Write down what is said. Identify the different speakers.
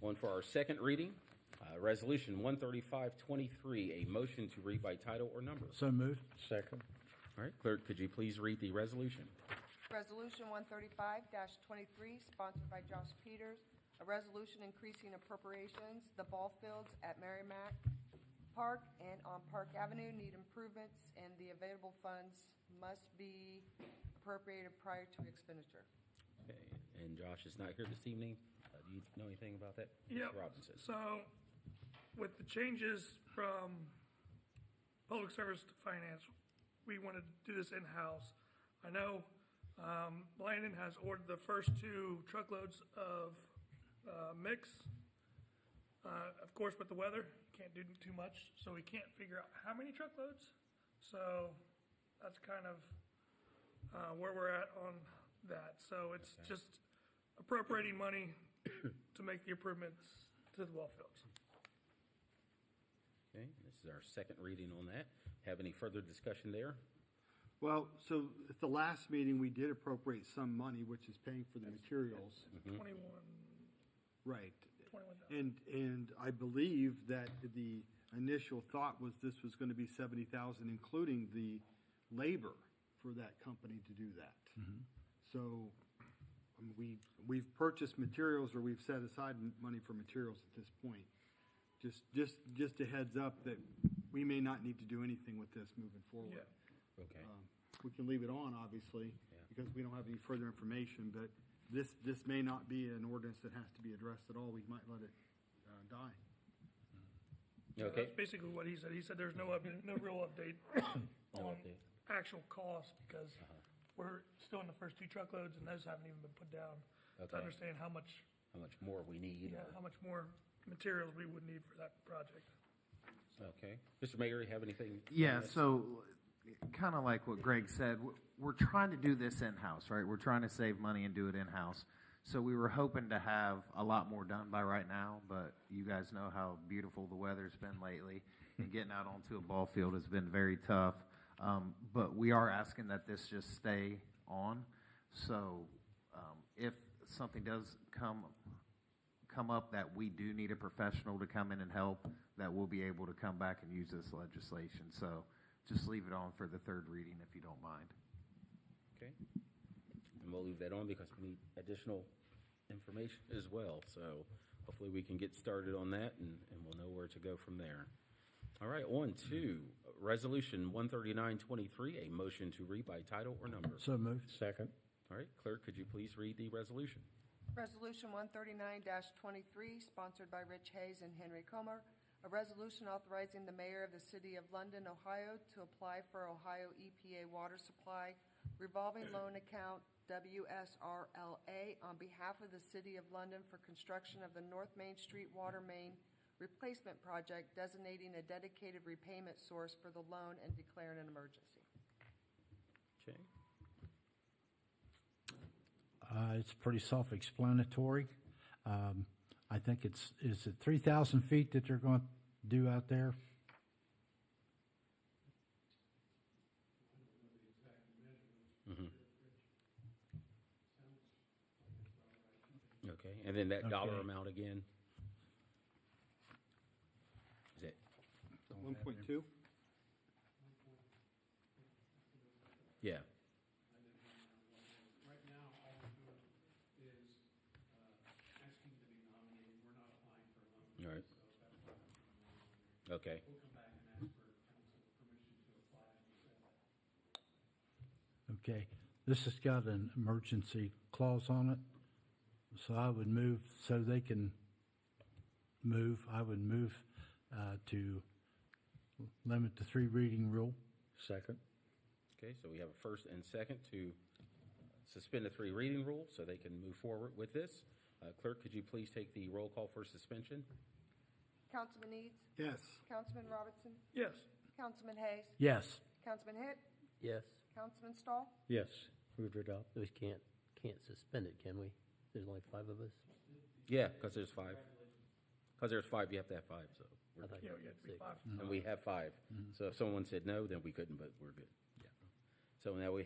Speaker 1: One for our second reading, uh, Resolution 13523, a motion to read by title or number.
Speaker 2: So moved.
Speaker 3: Second.
Speaker 1: All right, clerk, could you please read the resolution?
Speaker 4: Resolution 135-23, sponsored by Josh Peters, a resolution increasing appropriations, the ball fields at Merrimack Park and on Park Avenue need improvements, and the available funds must be appropriated prior to expenditure.
Speaker 1: Okay, And Josh is not here this evening. Uh, Do you know anything about that?
Speaker 5: Yep.
Speaker 1: Robinson.
Speaker 5: So with the changes from public service to finance, we want to do this in-house. I know um, Blandon has ordered the first two truckloads of uh, mix. Uh, Of course, with the weather, you can't do too much, so we can't figure out how many truckloads. So that's kind of uh, where we're at on that. So it's just appropriating money to make the improvements to the ball fields.
Speaker 1: Okay, this is our second reading on that. Have any further discussion there?
Speaker 3: Well, so at the last meeting, we did appropriate some money, which is paying for the materials.
Speaker 1: Mm-hmm.
Speaker 5: Twenty-one,
Speaker 3: Right.
Speaker 5: Mm-hmm. twenty-one thousand.
Speaker 3: And, and I believe that the initial thought was this was going to be seventy thousand, including the labor for that company to do that. So I mean, we, we've purchased materials or we've set aside m- money for materials at this point. Just, just, just a heads up that we may not need to do anything with this moving forward.
Speaker 5: Yeah.
Speaker 1: Okay.
Speaker 3: Um, We can leave it on, obviously,
Speaker 1: Yeah.
Speaker 3: because we don't have any further information, but this, this may not be an ordinance that has to be addressed at all. We might let it uh, die.
Speaker 1: Okay.
Speaker 5: That's basically what he said. He said there's no update, no real update on
Speaker 1: update. Uh-huh.
Speaker 5: actual cost because we're still in the first two truckloads and those haven't even been put down
Speaker 1: Okay.
Speaker 5: to understand how much,
Speaker 1: How much more we need? uh,
Speaker 5: yeah,
Speaker 1: or-
Speaker 5: how much more materials we would need for that project.
Speaker 1: Okay. Mr. Mayor, you have anything? on
Speaker 6: Yeah,
Speaker 1: this?
Speaker 6: so kind of like what Greg said, w- we're trying to do this in-house, right? We're trying to save money and do it in-house. So we were hoping to have a lot more done by right now, but you guys know how beautiful the weather's been lately. And getting out onto a ball field has been very tough. Um, but we are asking that this just stay on. So, um, if something does come come up that we do need a professional to come in and help, that we'll be able to come back and use this legislation. So just leave it on for the third reading if you don't mind.
Speaker 1: Okay. And we'll leave that on because we need additional information as well. So hopefully we can get started on that and, and we'll know where to go from there. All right, on to Resolution 13923, a motion to read by title or number.
Speaker 2: So moved.
Speaker 3: Second.
Speaker 1: All right, clerk, could you please read the resolution?
Speaker 4: Resolution 139-23, sponsored by Rich Hayes and Henry Comer, a resolution authorizing the mayor of the city of London, Ohio, to apply for Ohio EPA Water Supply Revolving Loan Account WSRLA on behalf of the city of London for construction of the North Main Street Water Main Replacement Project, designating a dedicated repayment source for the loan and declaring an emergency.
Speaker 1: Okay.
Speaker 2: Uh, It's pretty self-explanatory. Um, I think it's, is it 3,000 feet that they're going to do out there?
Speaker 1: Mm-hmm. Okay, and then that dollar
Speaker 2: Okay.
Speaker 1: amount again? Is it,
Speaker 3: One point two?
Speaker 1: yeah,
Speaker 7: Right now, all we're doing is uh, asking to be nominated, we're not applying for a loan.
Speaker 1: All right.
Speaker 7: So that's why
Speaker 1: okay.
Speaker 7: we'll come back and ask for council permission to apply and set that.
Speaker 2: Okay, this has got an emergency clause on it, so I would move, so they can move, I would move uh, to limit the three reading rule.
Speaker 3: Second.
Speaker 1: Okay, so we have a first and second to suspend the three reading rule so they can move forward with this. Uh, Clerk, could you please take the roll call for suspension?
Speaker 4: Councilman Eads?
Speaker 3: Yes.
Speaker 4: Councilman Robinson?
Speaker 5: Yes,
Speaker 4: Councilman Hayes?
Speaker 2: Yes,
Speaker 4: Councilman Hitt?
Speaker 8: Yes,
Speaker 4: Councilman Stahl?
Speaker 3: Yes.
Speaker 8: move to adopt. We can't, can't suspend it, can we? There's only five of us?
Speaker 1: Yeah, because there's five. Because there's five, you have to have five, so. we're-
Speaker 8: I thought
Speaker 5: yeah,
Speaker 8: you
Speaker 5: we had
Speaker 8: had
Speaker 5: to be
Speaker 8: six.
Speaker 5: five.
Speaker 1: And we have five. So if someone said no, then we couldn't, but we're good. Yeah. So now we